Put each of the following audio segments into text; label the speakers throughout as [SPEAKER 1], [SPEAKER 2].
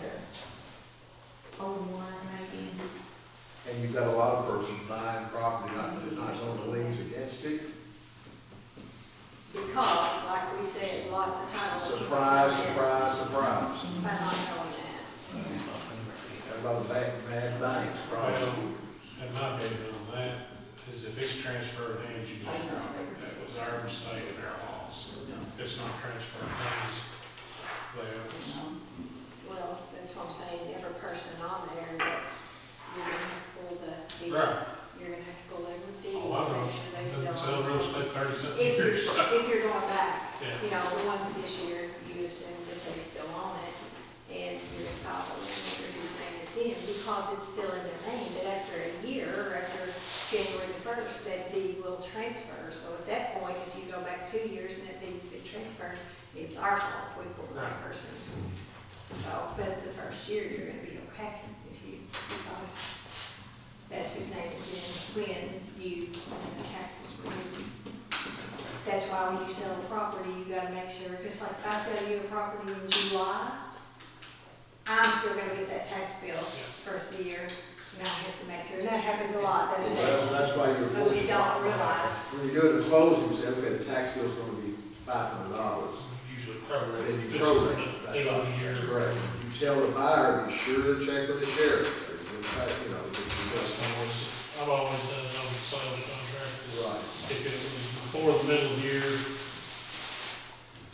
[SPEAKER 1] to oh one maybe.
[SPEAKER 2] And you've got a lot of persons buying property, not, not on the liens against it.
[SPEAKER 3] Because, like we said, lots of times. people
[SPEAKER 2] Surprise,
[SPEAKER 3] do this
[SPEAKER 2] surprise, surprise.
[SPEAKER 3] By not knowing that.
[SPEAKER 2] Everybody back, mad banks, probably.
[SPEAKER 4] And my opinion on that is if it's transferred hands, you don't drop it. That was our mistake and our loss. It's not transferred hands, theirs.
[SPEAKER 3] Well, that's what I'm saying, every person on there that's, you're gonna have to pull the deed.
[SPEAKER 4] Right.
[SPEAKER 3] You're gonna have to pull every
[SPEAKER 4] Oh, I know.
[SPEAKER 3] deed, make sure they
[SPEAKER 4] Sell real
[SPEAKER 3] still.
[SPEAKER 4] estate thirty something
[SPEAKER 3] If you're,
[SPEAKER 4] years.
[SPEAKER 3] if you're going back,
[SPEAKER 4] Yeah.
[SPEAKER 3] you know, the ones this year, you assume that they still own it, and you're gonna file a lien under whose name it's in, because it's still in their name, but after a year, or after January the first, that deed will transfer, so at that point, if you go back two years and that deed's been transferred, it's our fault, we pulled the wrong person. So, but the first year, you're gonna be okay, if you, because that's whose name it's in, when you, when the taxes were due. That's why when you sell a property, you gotta make sure, just like I sell you a property in July, I'm still gonna get that tax bill first of the year, and I have to make sure, and that happens a lot, doesn't
[SPEAKER 2] Well,
[SPEAKER 3] it?
[SPEAKER 2] that's why you're.
[SPEAKER 3] But we don't realize,
[SPEAKER 2] When you go to closing, you say, okay, the tax bill's gonna be five hundred dollars.
[SPEAKER 4] Usually program.
[SPEAKER 2] Then you
[SPEAKER 4] Just
[SPEAKER 2] program,
[SPEAKER 4] do
[SPEAKER 2] it.
[SPEAKER 4] it
[SPEAKER 2] that's
[SPEAKER 4] on
[SPEAKER 2] right,
[SPEAKER 4] the year.
[SPEAKER 2] that's correct. You tell the buyer, be sure to check with the sheriff, or you you know, if
[SPEAKER 4] That's my worst. I've always done it on the side of the contract.
[SPEAKER 2] you- right.
[SPEAKER 4] If it was before the middle of the year,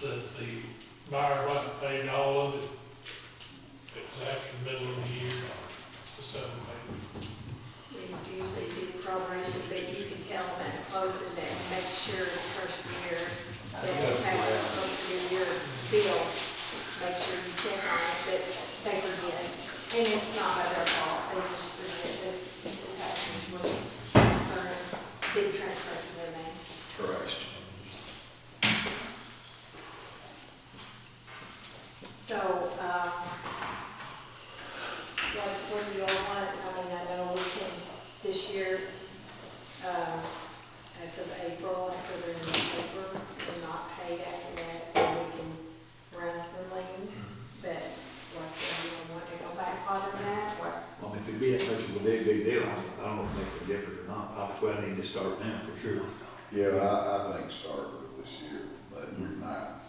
[SPEAKER 4] that the buyer might have paid all of it. If it was after the middle of the year, the seven paid.
[SPEAKER 3] we usually do proration, but you can tell them at closing that, make sure the first year, that the tax is supposed to be your bill, make sure you check on it, that they forget. And it's not by their fault, they just forget that the taxes was transferred, did transfer to their name.
[SPEAKER 2] Correct.
[SPEAKER 3] So, um, what, what do you all want, I mean, I know we can, this year, um, as of April, after they're in the paper, they're not paid after that, then we can run for liens, but what, do you want to go back farther than that, what?
[SPEAKER 5] Well, if it be that much of a big, big deal, I don't- I don't know if it makes a difference or not, I think we need to start now for sure.
[SPEAKER 6] Yeah, I, I think start with this year, but in my,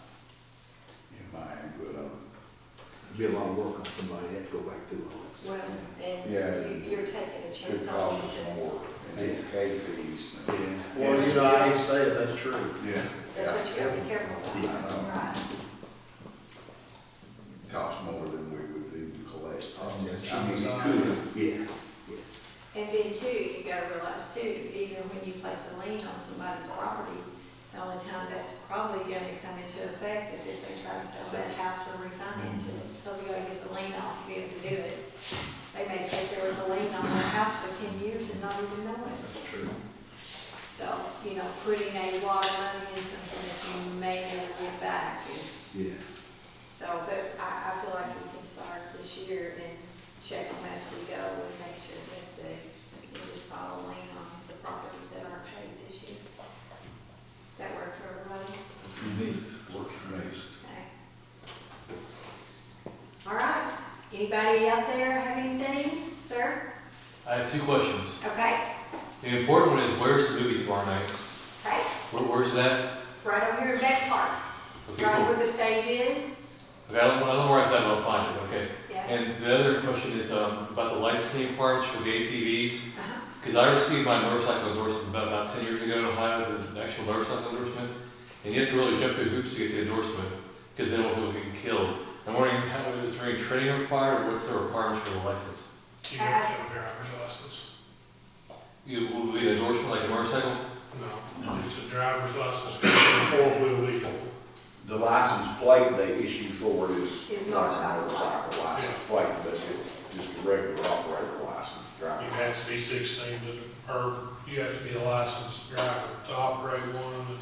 [SPEAKER 6] in um, my input on,
[SPEAKER 5] It'd be a lot of work on somebody, that have to go back through all that.
[SPEAKER 3] Well, and
[SPEAKER 6] Yeah.
[SPEAKER 3] you- you're taking a
[SPEAKER 6] it
[SPEAKER 3] chance on
[SPEAKER 6] costs
[SPEAKER 3] this, and
[SPEAKER 6] more, and it pay fees. and-
[SPEAKER 5] Yeah.
[SPEAKER 2] Well, you know, I hate to say it, that's true.
[SPEAKER 6] Yeah.
[SPEAKER 3] that's what you gotta be
[SPEAKER 6] I
[SPEAKER 3] careful about,
[SPEAKER 6] know,
[SPEAKER 3] right?
[SPEAKER 6] it costs more than we would even collect.
[SPEAKER 2] Oh, yes,
[SPEAKER 6] I mean, it
[SPEAKER 2] Amazon.
[SPEAKER 6] could.
[SPEAKER 5] Yeah, yes.
[SPEAKER 3] And then too, you gotta realize too, even when you place a lien on somebody's property, the only time that's probably gonna come into effect is if they try to sell that house or refinance it. Because you gotta get the lien off to be able to do it. They may say there was a lien on their house for ten years and not even know it.
[SPEAKER 2] That's true.
[SPEAKER 3] So, you know, putting a lot of money in something that you may never get back is,
[SPEAKER 5] Yeah.
[SPEAKER 3] so, but I, I feel like we can start this year and check them as we go and make sure that they, we just follow lane on the properties that aren't paid this year. That work for everybody?
[SPEAKER 6] You need, it. works for me.
[SPEAKER 3] Okay. All right, anybody out there have anything, sir?
[SPEAKER 7] I have two questions.
[SPEAKER 3] Okay,
[SPEAKER 7] The important one is where's the movie tomorrow night?
[SPEAKER 3] okay,
[SPEAKER 7] Where, where's that?
[SPEAKER 3] right over here in Beck Park,
[SPEAKER 7] Okay,
[SPEAKER 3] right
[SPEAKER 7] cool.
[SPEAKER 3] where the stage is.
[SPEAKER 7] Okay, I don't, I don't worry about that, but I'll find it, okay?
[SPEAKER 3] Yeah.
[SPEAKER 7] And the other question is, um, about the licensing parts for the ATVs.
[SPEAKER 3] Uh-huh.
[SPEAKER 7] Because I received my motorcycle endorsement about, about ten years ago in Ohio, the actual motorcycle endorsement. And you have to really jump through hoops to get the endorsement, because then we'll get killed. I'm wondering, how, is there any training required, or what's the requirements for the license?
[SPEAKER 4] You have to have a driver's license.
[SPEAKER 7] You, will it be an endorsement like a motorcycle?
[SPEAKER 4] No, it's a driver's license, four-wheel vehicle.
[SPEAKER 6] The license plate they issue for is.
[SPEAKER 3] Is
[SPEAKER 6] not a
[SPEAKER 3] motorcycle
[SPEAKER 6] Motorcycle license plate, but it's just a regular operator license,
[SPEAKER 4] You
[SPEAKER 6] driver.
[SPEAKER 4] have to be sixteen, to- or you have to be a licensed driver to operate one.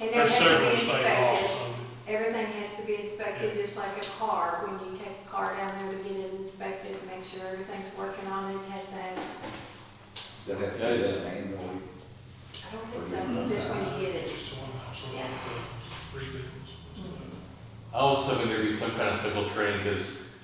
[SPEAKER 3] And they have to
[SPEAKER 4] There's
[SPEAKER 3] be
[SPEAKER 4] several state
[SPEAKER 3] inspected.
[SPEAKER 4] laws on it.
[SPEAKER 3] Everything has to be inspected, just like a car, when you take a car down there to get it inspected, make sure everything's working on it, has that,
[SPEAKER 6] That have to
[SPEAKER 7] That
[SPEAKER 6] be
[SPEAKER 7] is-
[SPEAKER 6] done annually.
[SPEAKER 3] I don't think so, just when you get it.
[SPEAKER 4] Just one house, one
[SPEAKER 3] Yeah. Mm-hmm.
[SPEAKER 4] of the three vehicles.
[SPEAKER 7] I was hoping there'd be some kind of physical training, because